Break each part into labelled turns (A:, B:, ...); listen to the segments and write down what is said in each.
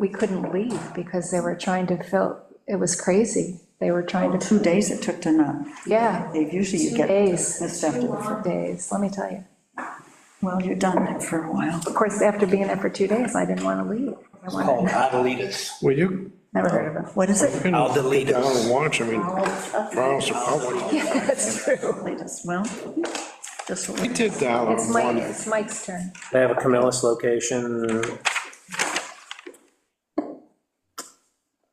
A: we couldn't leave because they were trying to fill, it was crazy. They were trying to,
B: Two days it took to not,
A: yeah,
B: leave. usually you get
A: days.
B: this after the first.
A: days, let me tell you.
B: Well, you're done there for a while.
A: Of course, after being there for two days, I didn't want to leave. I
C: It's
A: wanted,
C: called Adelitas.
D: Well, you
A: never heard of it.
B: What is it?
D: can
C: I'll delete
D: sit down
C: it.
D: and watch, I mean, Charles, I watched-
A: Yeah, that's true.
B: Latest, Well, just what
D: I
B: we-
D: did that
A: It's
D: on
A: Mike,
D: Monday.
A: it's Mike's turn.
E: They have a Camillus location.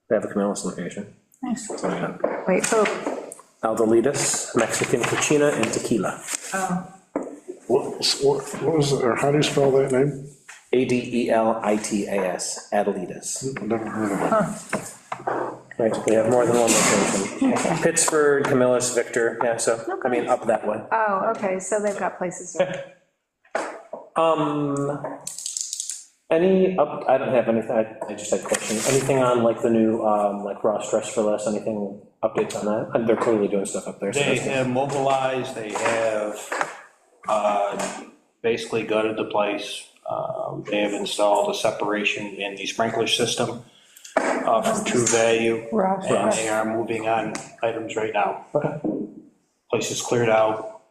E: They have a Camillus location.
B: nice.
E: So, yeah.
A: Wait, oh,
E: Aldelitas, Mexican Cucina and Tequila.
D: What, what what was, it, or how do you spell that name?
E: A D E L I T A S, Adelitas.
D: I've Never heard of it.
E: Right, we have more than one location. Pittsford, Camillus, Victor, yeah, so, I mean, up that way.
A: oh, okay, so they've got places.
E: Um, any up, I don't have anything, I, I just had questions. Anything on like the new, um, like Ross Dress for Less, anything, updates on that? And They're clearly doing stuff up there. so
C: They
E: that's-
C: have mobilized, they have uh, basically gutted the place. Uh, They have installed a separation in the sprinkler system uh, from True Value. And they are moving on items right now.
E: Okay.
C: Place is cleared out,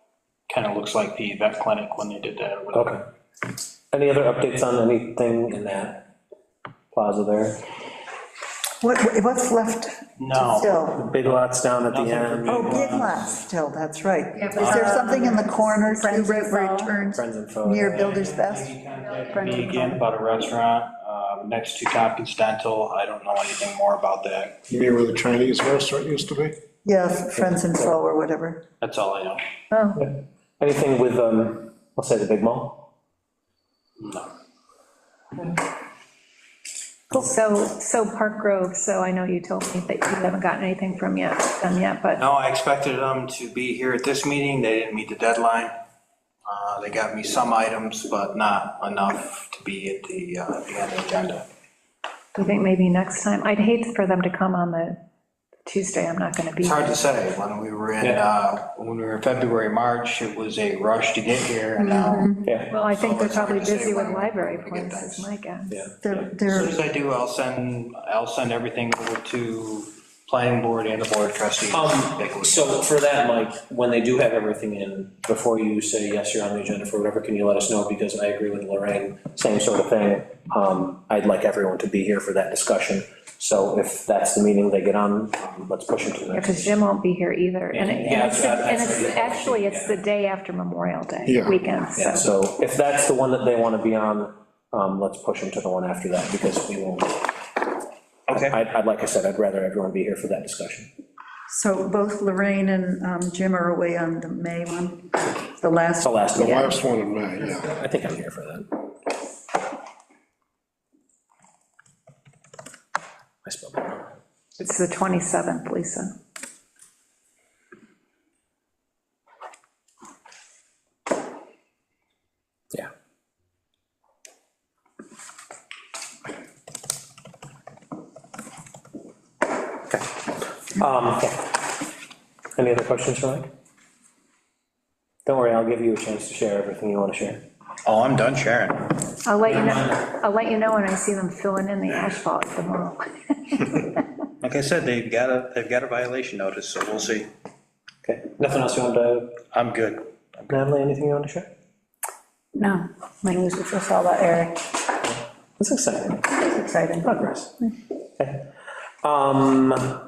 C: kind of looks like the vet clinic when they did that. or whatever.
E: Okay. Any other updates on anything in that plaza there?
B: What, what's left
E: Oh.
C: No,
B: still?
E: Big lots down at the
C: Nothing for
E: end,
C: me.
B: Oh, big lots still, that's right.
A: Yeah, but- uh,
B: Is there something in the corner, too,
A: Friends
B: right where
A: and
B: it
A: Foe.
B: turns
E: Friends and Foe.
B: near Builder's Best?
C: Maybe contact Me again about a restaurant, um, next to Tompkins Dental, I don't know anything more about that,
D: You mean where the Chinese restaurant used to be?
B: Yeah, Friends and Foe or whatever.
C: that's all I know.
A: Oh,
E: Anything with, um, I'll say the big mall?
C: No.
A: so, so Park Grove, so I know you told me that you haven't gotten anything from yet, them yet, but.
C: No, I expected them to be here at this meeting, they didn't meet the deadline. Uh, They got me some items, but not enough to be at the, uh, the end of the agenda.
A: I think maybe next time, I'd hate for them to come on the Tuesday, I'm not gonna be.
C: It's hard to say, when we were in, uh, when we were in February, March, it was a rush to get here, and now,
E: Yeah,
A: Well, I think they're
C: It's hard
A: probably
C: to say
A: busy with
C: when
A: library
C: we get
A: plans, is
C: those.
A: my guess.
E: yeah.
B: They're,
C: as
B: they're,
C: soon as I do, I'll send, I'll send everything over to planning board and the board of trustees. Take a
E: Um,
C: look.
E: so for that, Mike, when they do have everything in, before you say, yes, you're on the agenda for whatever, can you let us know? Because I agree with Lorraine, same sort of thing. Um, I'd like everyone to be here for that discussion. So if that's the meeting they get on, um, let's push them to the next.
A: Because Jim won't be here either, and it-
E: Yeah,
A: and it's,
E: yeah,
A: and
E: that's-
A: it's, actually, it's the day after Memorial Day
D: Yeah.
A: weekend,
E: Yeah,
A: so.
E: so if that's the one that they want to be on, um, let's push them to the one after that, because we won't.
C: Okay.
E: I'd, I'd- like I said, I'd rather everyone be here for that discussion.
B: so both Lorraine and um, Jim are away on the May one, the
E: It's
B: last.
E: the last
D: The
E: one.
D: last one in May, yeah.
E: I think I'm here for that. I spelled it wrong.
A: It's the 27th, Lisa.
E: Yeah. Okay. Um, yeah. Any other questions for Mike? Don't worry, I'll give you a chance to share everything you want to share.
C: Oh, I'm done sharing.
A: I'll let you know, I'll let you know when I see them filling in the asphalt at the mall.
C: Like I said, they've got a, they've got a violation notice, so we'll see.
E: Okay, nothing else you want to,
C: I'm good.
E: Natalie, anything you want to share?
F: No, my news was just all about Eric.
E: That's exciting.
F: It's exciting.
E: Progress. Okay. Um,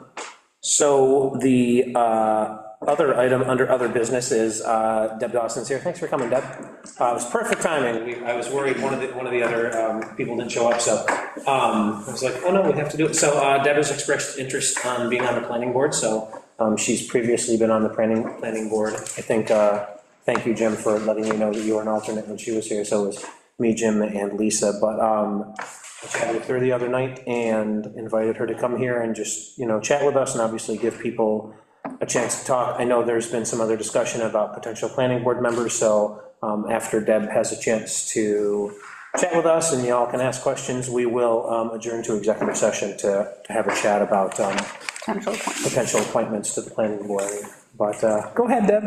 E: so the, uh, other item under other business is, uh, Deb Dawson's here. Thanks for coming, Deb. Uh, it was perfect timing. We- I was worried one of the, one of the other, um, people didn't show up, so, um, I was like, oh no, we have to do it. So, uh, Deb has expressed interest on being on the planning board, so, um, she's previously been on the planning, planning board. I think, uh, thank you, Jim, for letting me know that you were an alternate when she was here, so it was me, Jim, and Lisa, but, um, I chatted with her the other night and invited her to come here and just, you know, chat with us and obviously give people a chance to talk. I know there's been some other discussion about potential planning board members, so um, after Deb has a chance to chat with us and y'all can ask questions, we will um, adjourn to executive session to, to have a chat about um,
F: Potential appointment.
E: potential appointments to the planning board. But uh, go ahead, Deb.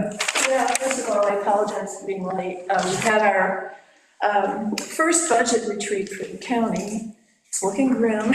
G: Yeah, first of all, I apologize for being late. Um, We had our um, first budget retreat for the county. It's looking grim.